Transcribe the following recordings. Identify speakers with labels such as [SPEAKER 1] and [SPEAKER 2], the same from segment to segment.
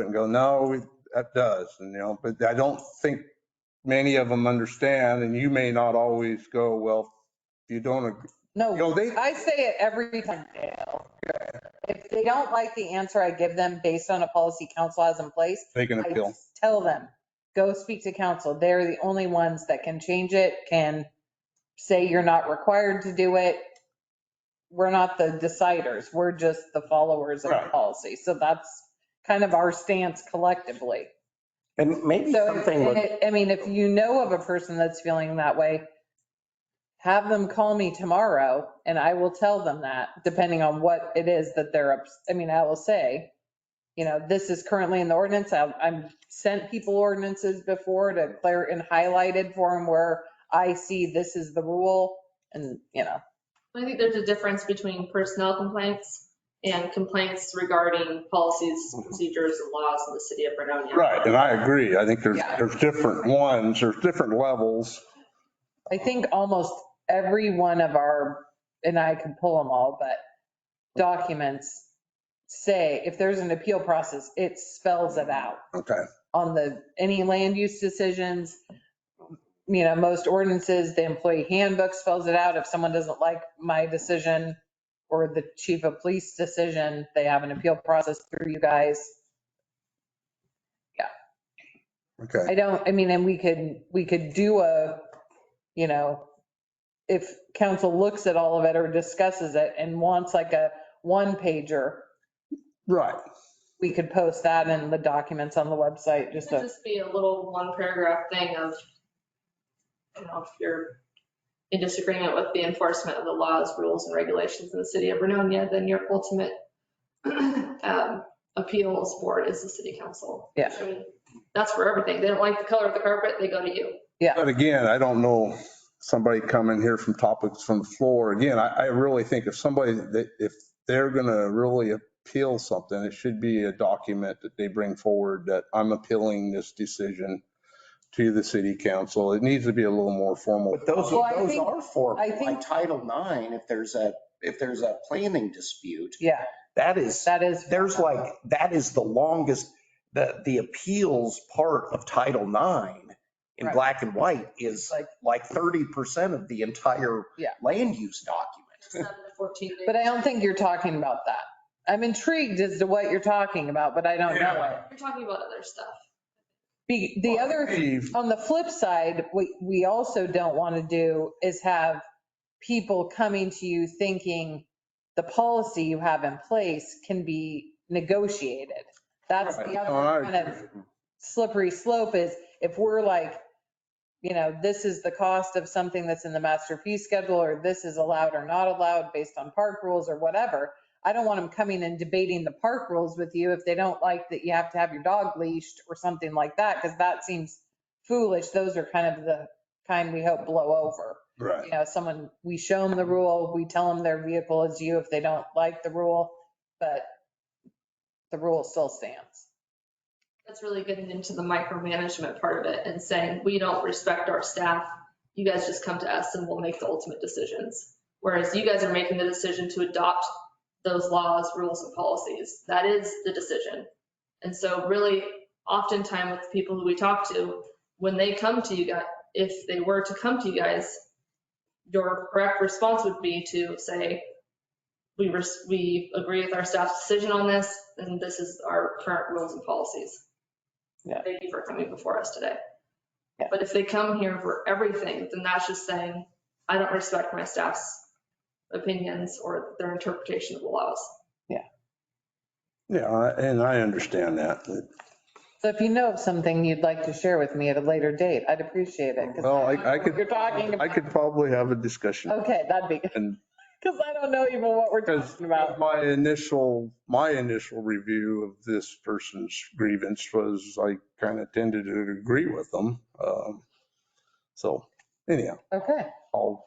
[SPEAKER 1] and go, no, that does, and you know, but I don't think many of them understand, and you may not always go, well, if you don't, agree- you
[SPEAKER 2] No,
[SPEAKER 1] know, they,
[SPEAKER 2] I say it every time, Dale. If they don't like the answer I give them based on a policy council has in place,
[SPEAKER 1] they can
[SPEAKER 2] I
[SPEAKER 1] appeal.
[SPEAKER 2] tell them, go speak to council. They're the only ones that can change it, can say you're not required to do it. We're not the deciders. We're just the followers of the
[SPEAKER 1] Right.
[SPEAKER 2] policy. So that's kind of our stance collectively.
[SPEAKER 3] And maybe
[SPEAKER 2] So,
[SPEAKER 3] something
[SPEAKER 2] and
[SPEAKER 3] with,
[SPEAKER 2] it- I mean, if you know of a person that's feeling that way, have them call me tomorrow and I will tell them that, depending on what it is that they're, ups- I mean, I will say, you know, this is currently in the ordinance. I've, I've sent people ordinances before to clear and highlighted for them where I see this is the rule and, you know,
[SPEAKER 4] I think there's a difference between personnel complaints and complaints regarding policies,
[SPEAKER 2] Mm-hmm.
[SPEAKER 4] procedures, and laws in the city of Vernonia.
[SPEAKER 1] Right, and I agree. I think there's,
[SPEAKER 2] Yeah.
[SPEAKER 1] there's different ones, there's different levels.
[SPEAKER 2] I think almost every one of our, and I can pull them all, but documents say if there's an appeal process, it spells it out
[SPEAKER 1] Okay,
[SPEAKER 2] on the, any land use decisions. You know, most ordinances, the employee handbook spells it out. If someone doesn't like my decision or the chief of police decision, they have an appeal process through you guys.
[SPEAKER 1] okay.
[SPEAKER 2] I don't, I mean, and we could, we could do a, you know, if council looks at all of it or discusses it and wants like a one pager,
[SPEAKER 1] Right,
[SPEAKER 2] we could post that in the documents on the website,
[SPEAKER 4] It
[SPEAKER 2] just
[SPEAKER 4] could
[SPEAKER 2] a,
[SPEAKER 4] just be a little one paragraph thing of, you know, if you're in disagreement with the enforcement of the laws, rules, and regulations in the city of Vernonia, then your ultimate um, appeals board is the city council.
[SPEAKER 2] Yeah.
[SPEAKER 4] I mean, That's for everything. They don't like the color of the carpet, they go to you.
[SPEAKER 1] but again, I don't know, somebody coming here from topics from the floor, again, I, I really think if somebody, that if they're gonna really appeal something, it should be a document that they bring forward that I'm appealing this decision to the city council. It needs to be a little more formal.
[SPEAKER 3] but those,
[SPEAKER 2] Well, I
[SPEAKER 3] those
[SPEAKER 2] think-
[SPEAKER 3] are for,
[SPEAKER 2] I think-
[SPEAKER 3] like Title IX, if there's a, if there's a planning dispute,
[SPEAKER 2] yeah,
[SPEAKER 3] that is,
[SPEAKER 2] that is.
[SPEAKER 3] there's like, that is the longest, the, the appeals part of Title IX in
[SPEAKER 2] Right.
[SPEAKER 3] black and white is
[SPEAKER 2] Like-
[SPEAKER 3] like 30% of the entire
[SPEAKER 2] Yeah.
[SPEAKER 3] land use document.
[SPEAKER 4] Seven to 14 days.
[SPEAKER 2] But I don't think you're talking about that. I'm intrigued as to what you're talking about, but I don't know it.
[SPEAKER 4] You're talking about other stuff.
[SPEAKER 2] Be- The other
[SPEAKER 1] Steve,
[SPEAKER 2] On the flip side, what we also don't want to do is have people coming to you thinking the policy you have in place can be negotiated. That's the
[SPEAKER 1] All
[SPEAKER 2] other
[SPEAKER 1] right.
[SPEAKER 2] kind of slippery slope is if we're like, you know, this is the cost of something that's in the master fee schedule, or this is allowed or not allowed based on park rules or whatever. I don't want them coming and debating the park rules with you if they don't like that you have to have your dog leashed or something like that, because that seems foolish. Those are kind of the kind we hope blow over.
[SPEAKER 1] Right.
[SPEAKER 2] You know, someone, we show them the rule, we tell them their vehicle is you if they don't like the rule, but the rule still stands.
[SPEAKER 4] That's really getting into the micromanagement part of it and saying, we don't respect our staff. You guys just come to us and we'll make the ultimate decisions. Whereas you guys are making the decision to adopt those laws, rules and policies. That is the decision. And so really oftentimes with the people who we talk to, when they come to you guys, if they were to come to you guys, your correct response would be to say, we, res- we agree with our staff's decision on this and this is our current rules and policies thank you for coming before us today.
[SPEAKER 2] Yeah.
[SPEAKER 4] But if they come here for everything, then that's just saying, I don't respect my staff's opinions or their interpretation of the laws.
[SPEAKER 1] Yeah, I- and I understand that.
[SPEAKER 2] So if you know of something you'd like to share with me at a later date, I'd appreciate it. 'cause
[SPEAKER 1] Well, I I
[SPEAKER 2] what You're
[SPEAKER 1] could,
[SPEAKER 2] talking
[SPEAKER 1] I
[SPEAKER 2] about,
[SPEAKER 1] could probably have a discussion
[SPEAKER 2] okay, that'd be, good
[SPEAKER 1] and
[SPEAKER 2] because I don't know even what we're
[SPEAKER 1] Because
[SPEAKER 2] talking about.
[SPEAKER 1] my initial, my initial review of this person's grievance was I kind of tended to agree with them. Um, So anyhow,
[SPEAKER 2] Okay,
[SPEAKER 1] I'll,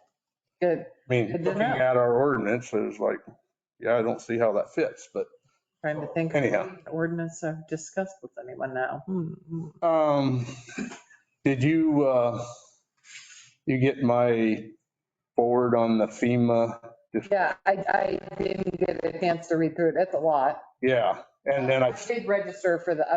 [SPEAKER 2] good.
[SPEAKER 1] I mean,
[SPEAKER 2] Good to
[SPEAKER 1] looking
[SPEAKER 2] know.
[SPEAKER 1] at our ordinance, it was like, yeah, I don't see how that fits, but
[SPEAKER 2] Trying to think. of
[SPEAKER 1] anyhow.
[SPEAKER 2] Ordinance I've discussed with anyone now. Hmm, hmm.
[SPEAKER 1] Um, did you, uh, you get my forward on the FEMA?
[SPEAKER 2] Yeah, I, I didn't get a chance to read through it. That's a lot.
[SPEAKER 1] Yeah, and then I
[SPEAKER 2] did register for the